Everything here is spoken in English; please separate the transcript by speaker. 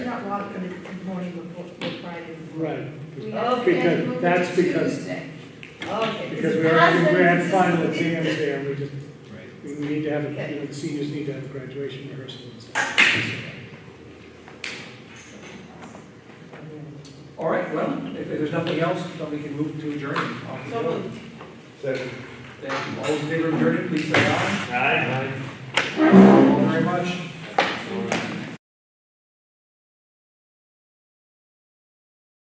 Speaker 1: o'clock in the morning before, before Friday.
Speaker 2: Right,
Speaker 3: We
Speaker 1: Okay.
Speaker 3: actually moved it
Speaker 2: That's
Speaker 3: to
Speaker 2: because-
Speaker 3: Tuesday.
Speaker 1: Okay.
Speaker 2: because we already, we had
Speaker 1: Husband-
Speaker 2: final exams there, and we just,
Speaker 4: Right.
Speaker 2: we need to have,
Speaker 1: Okay.
Speaker 2: you know, the seniors need to have a graduation rehearsal and stuff.
Speaker 4: All right, well, if there's nothing else, then we can move to adjourn. Off we
Speaker 1: So
Speaker 4: go.
Speaker 1: moved.
Speaker 4: Thank you. All those in favor of adjourn, please say aye.
Speaker 5: Aye.
Speaker 4: Thank you all very much.